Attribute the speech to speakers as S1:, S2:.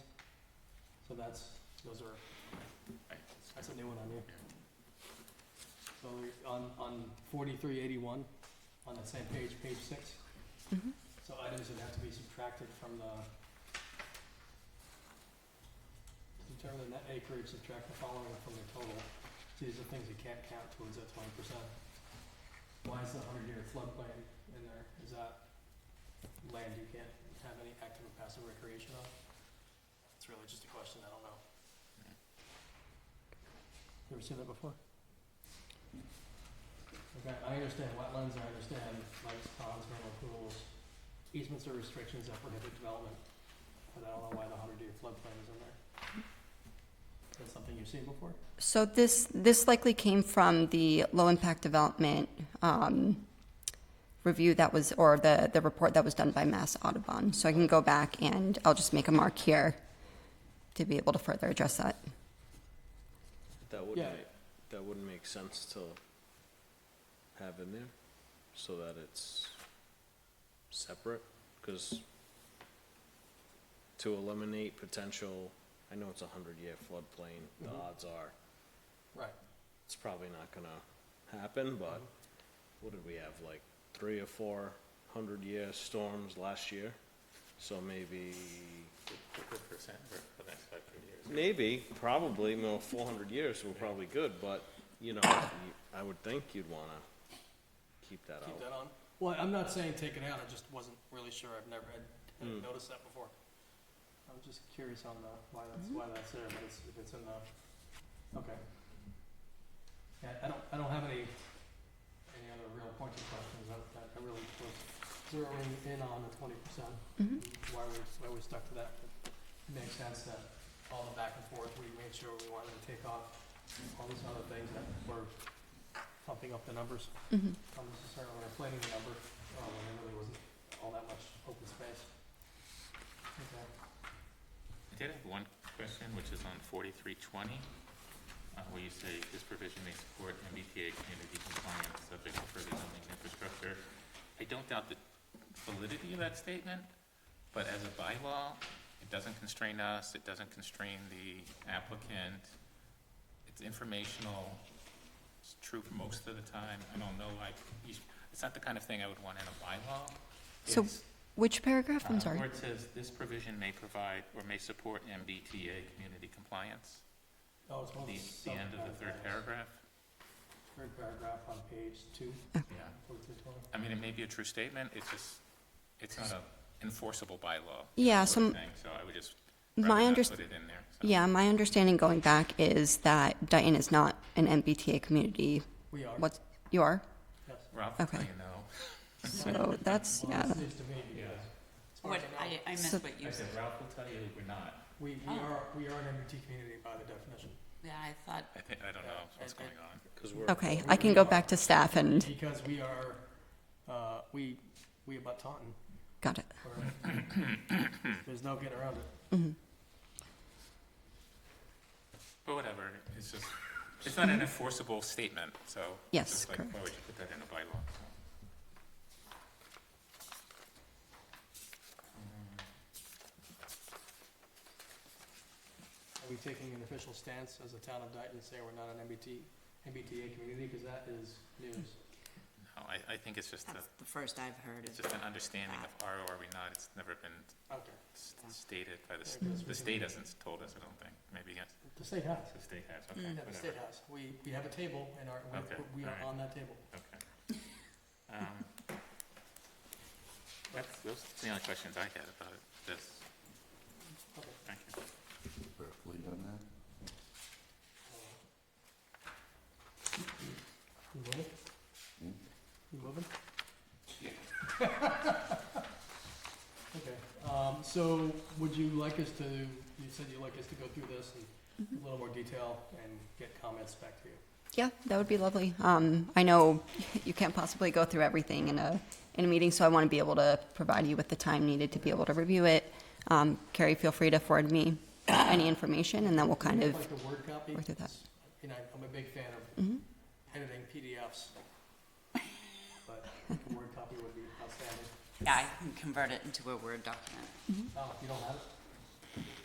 S1: that's, those are, that's a new one on here. So we're on, on forty-three eighty-one, on that same page, page six,
S2: Mhm.
S1: so items that have to be subtracted from the determine the net acreage, subtract the following from the total, these are things you can't count towards that twenty percent. Why is the hundred year floodplain in there, is that land you can't have any active or passive recreation on? It's really just a question, I don't know. Mm-hmm. You Ever seen that before? Okay, I understand wetlands, I understand lakes, ponds, vernal pools, easements are restrictions that prohibit development, but I don't know why the hundred year floodplain is in there. That's something you've seen before?
S2: So this, this likely came from the low-impact development um, review that was, or the, the report that was done by Mass Audubon. So I can go back and I'll just make a mark here to be able to further address that.
S3: That wouldn't
S1: Yeah.
S3: make, that wouldn't make sense to have in there, so that it's separate, cause to eliminate potential, I know it's a hundred year floodplain, the
S1: Mhm.
S3: odds are,
S1: Right.
S3: it's probably not gonna happen, but what did we have, like, three or four hundred year storms last year? So maybe,
S4: Fifty percent for the next five years.
S3: maybe, probably, no, four hundred years were probably good, but, you know, you- I would think you'd wanna keep that
S1: Keep
S3: out.
S1: that on? Well, I'm not saying take it out, I just wasn't really sure, I've never, I hadn't
S3: Hmm.
S1: noticed that before. Hmm? I was just curious on the, why that's, why that's there, but it's, if it's in the, okay. Yeah, I don't, I don't have any, any other real pointed questions, I, I I really was zeroing in on the twenty percent.
S2: Mhm.
S1: Why we, why we stuck to that, it makes sense that all the back and forth, we made sure we wanted to take off all these other things that were pumping up the numbers
S2: Mhm.
S1: unnecessarily inflating the number, uh, when there really wasn't all that much open space. Okay.
S4: I did have one question, which is on forty-three twenty, uh, where you say this provision may support MBTA community compliance subject to further zoning and infrastructure. I don't doubt the validity of that statement, but as a bylaw, it doesn't constrain us, it doesn't constrain the applicant. It's informational, it's true for most of the time, I don't know, like, you, sh- it's not the kind of thing I would want in a bylaw.
S2: So
S4: It's-
S2: Which paragraph?
S4: uh,
S2: I'm sorry.
S4: Where it says, "This provision may provide or may support MBTA community compliance,"
S1: Oh, it's
S4: the,
S1: one of the.
S4: the end of the third
S1: sub-paragraphs.
S4: paragraph.
S1: Third paragraph on page two,
S4: Yeah.
S1: forty-three twenty.
S4: I mean, it may be a true statement, it's just, it's not a enforceable bylaw.
S2: Yeah,
S4: sort of
S2: so
S4: thing, So I would just
S2: my
S4: rather not
S2: underst-
S4: put it in there. so.
S2: Yeah, my understanding going back is that Dayton is not an MBTA community.
S1: We are, yes.
S2: What's, you are?
S4: Ralph will
S2: Okay.
S4: tell you no.
S2: So that's,
S1: Well,
S2: yeah.
S1: it seems to me,
S4: Yeah.
S1: because. as far
S5: What,
S1: as I know,
S5: I, I missed
S2: So-
S5: what you
S4: I said
S5: said.
S4: Ralph will tell you we're not.
S1: We, we
S5: Oh.
S1: are, we are an MBT community by the definition,
S5: Yeah, I thought,
S4: I think, I don't know what's
S1: Yeah, I-
S4: going on.
S3: Cause we're,
S2: Okay, I can go back to staff and,
S1: because we are, uh, we, we about Taunton,
S2: got it.
S1: or- there's no getting around it.
S4: But whatever, it's just, it's not an enforceable statement, so. it's
S2: Yes,
S4: just like, Why would you put that in a bylaw? so. Mm-hmm.
S1: Are we taking an official stance as a town of Dayton, saying we're not an MBT, MBTA community, because that is news?
S4: No, Oh, I, I think it's just a,
S5: that's the first I've heard
S4: it's
S5: of.
S4: just an understanding of are or are we not, it's never been
S1: Okay.
S4: s- stated by the, s-
S1: Yeah, 'cause we
S4: the state
S1: can-
S4: hasn't told us, I don't think. Maybe, yes,
S1: The state has.
S4: the state has, okay,
S5: Mm.
S1: Yeah, the state
S4: whatever,
S1: has. We, we have a table and our, we-
S4: Okay,
S1: we are on
S4: alright.
S1: that table.
S4: okay. Um, That's, those are the only questions I had about this.
S1: Okay.
S4: Thank you.
S6: Briefly on that.
S1: You moving?
S6: Hmm?
S1: You moving?
S4: Yeah.
S1: Okay, um, so would you like us to, you said you'd like us to go through this in a little more detail and get comments back to you?
S2: Yeah, that would be lovely. Um, I know you can't possibly go through everything in a, in a meeting, so I want to be able to provide you with the time needed to be able to review it. Um, Carrie, feel free to forward me any information, and then we'll kind of,
S1: Like the word copy?
S2: work through that.
S1: You know, I'm a big fan of
S2: Mhm.
S1: editing PDFs. But a word copy would be outstanding.
S5: Yeah, I can convert it into a Word document.
S1: Oh, you don't have it?